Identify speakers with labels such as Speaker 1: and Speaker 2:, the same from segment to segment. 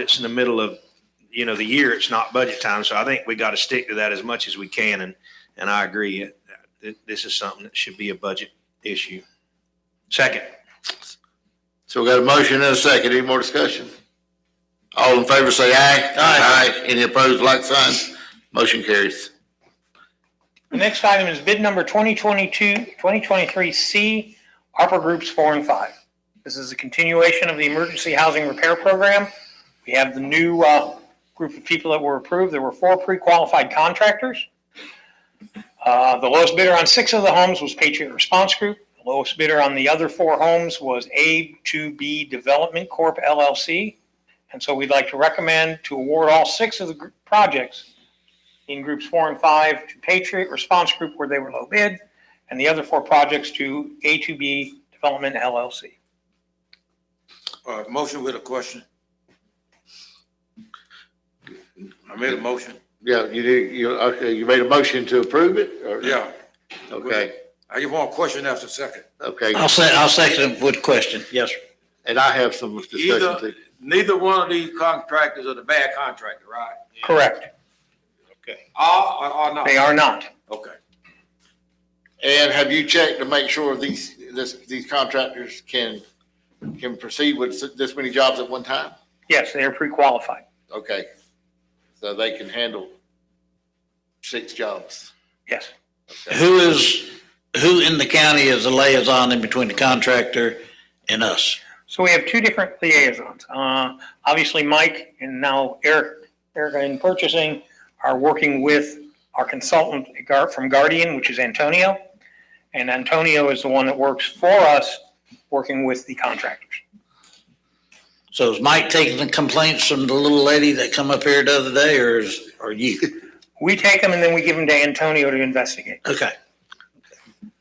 Speaker 1: it's in the middle of, you know, the year, it's not budget time. So I think we got to stick to that as much as we can. And, and I agree. it- it- This is something that should be a budget issue. Second,
Speaker 2: So we got a motion and a second. Any more discussion? All in favor say aye. Aye. Any opposed, like sign. Motion carries.
Speaker 3: The next item is bid number 2022-2023C, ARPA Groups 4 and 5. This is a continuation of the Emergency Housing Repair Program. We have the new uh, group of people that were approved. There were four pre-qualified contractors. Uh, The lowest bidder on six of the homes was Patriot Response Group. The lowest bidder on the other four homes was A2B Development Corp. LLC. And so we'd like to recommend to award all six of the gr- projects in groups four and five to Patriot Response Group where they were low bid, and the other four projects to A2B Development LLC.
Speaker 4: Uh, motion with a question. I made a motion,
Speaker 2: Yeah, you did, you, okay, you made a motion to approve it? or-
Speaker 4: yeah.
Speaker 2: Okay,
Speaker 4: I give one question after second.
Speaker 2: okay.
Speaker 5: I'll say, I'll second it with a question. Yes, sir.
Speaker 2: And I have some discussion
Speaker 4: Either,
Speaker 2: too.
Speaker 4: neither one of these contractors are the bad contractor, right?
Speaker 3: Correct.
Speaker 4: Are or are not?
Speaker 3: They are not.
Speaker 4: Okay.
Speaker 2: And have you checked to make sure these, this, these contractors can, can proceed with this many jobs at one time?
Speaker 3: Yes, they are pre-qualified.
Speaker 2: Okay. So they can handle six jobs.
Speaker 3: Yes.
Speaker 5: Who is, who in the county is the liaison in between the contractor and us?
Speaker 3: So we have two different liaisons. Uh, Obviously, Mike and now Eric, Erica in purchasing are working with our consultant at Gar- from Guardian, which is Antonio. And Antonio is the one that works for us, working with the contractors.
Speaker 5: So is Mike taking the complaints from the little lady that come up here the other day or is, or you?
Speaker 3: We take them and then we give them to Antonio to investigate.
Speaker 5: Okay.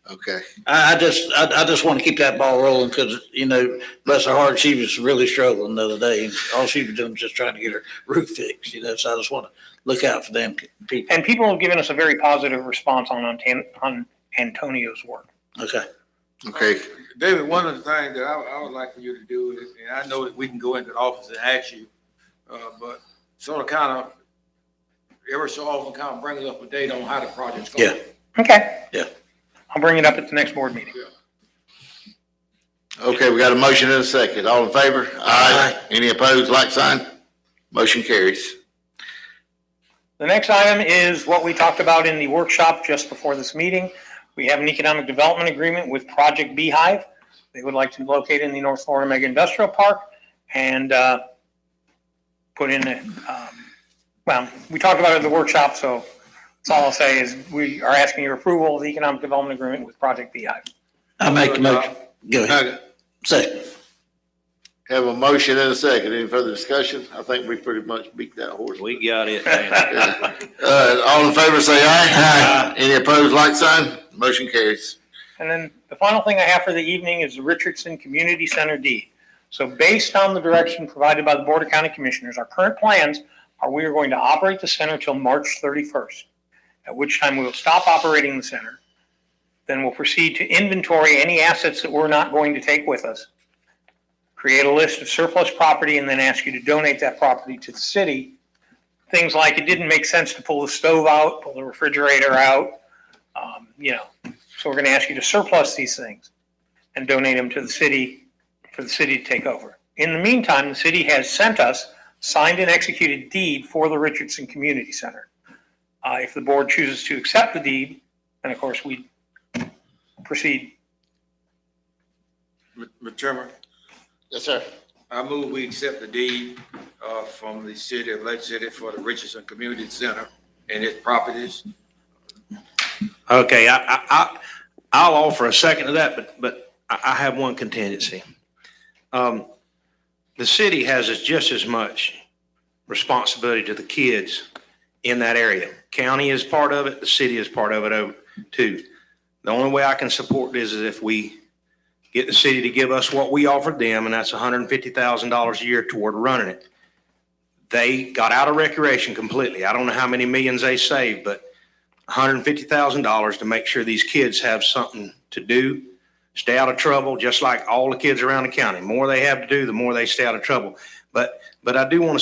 Speaker 2: Okay.
Speaker 5: I, I just, I, I just want to keep that ball rolling because, you know, bless her heart, she was really struggling the other day. and All she was doing was just trying to get her roof fixed, you know, so I just want to look out for them people.
Speaker 3: And people have given us a very positive response on, Anton- on Antonio's work.
Speaker 5: Okay.
Speaker 2: Okay.
Speaker 4: David, one of the things that I, I would like for you to do, is- and I know that we can go into the office and ask you, uh, but sort of kind of, every so often kind of bring us up a date on how the project's going.
Speaker 5: Yeah.
Speaker 3: Okay.
Speaker 5: Yeah.
Speaker 3: I'll bring it up at the next board meeting.
Speaker 2: Okay, we got a motion and a second. All in favor? Aye. Any opposed, like sign? Motion carries.
Speaker 3: The next item is what we talked about in the workshop just before this meeting. We have an economic development agreement with Project Beehive. They would like to locate in the North Florida Mega Industrial Park and uh, put in, a, um, well, we talked about it in the workshop, so that's all I'll say is we are asking your approval of the economic development agreement with Project Beehive.
Speaker 5: I make the motion. Go ahead.
Speaker 2: Okay.
Speaker 5: Second.
Speaker 2: Have a motion and a second. Any further discussion? I think we pretty much beat that horse.
Speaker 1: we got it. down.
Speaker 2: Uh, all in favor, say aye. Aye. Any opposed, like sign? Motion carries.
Speaker 3: And then the final thing I have for the evening is the Richardson Community Center deed. So based on the direction provided by the Board of County Commissioners, our current plans are we are going to operate the center till March 31st, at which time we will stop operating the center. Then we'll proceed to inventory any assets that we're not going to take with us. Create a list of surplus property and then ask you to donate that property to the city. Things like it didn't make sense to pull the stove out, pull the refrigerator out, um, you know, so we're going to ask you to surplus these things and donate them to the city, for the city to take over. In the meantime, the city has sent us signed and executed deed for the Richardson Community Center. Uh, if the board chooses to accept the deed, then of course we proceed.
Speaker 4: Mr. Chairman?
Speaker 2: Yes, sir.
Speaker 4: I move we accept the deed uh, from the city of Lake City for the Richardson Community Center and its properties.
Speaker 1: Okay, I, I, I, I'll offer a second to that, but, but I, I have one contingency. Um, the city has as- just as much responsibility to the kids in that area. County is part of it, the city is part of it over too. The only way I can support this is if we get the city to give us what we offered them, and that's hundred and fifty thousand dollars a year toward running it. They got out of recreation completely. I don't know how many millions they saved, but $150,000 to make sure these kids have something to do, stay out of trouble, just like all the kids around the county. More they have to do, the more they stay out of trouble. But, but I do want to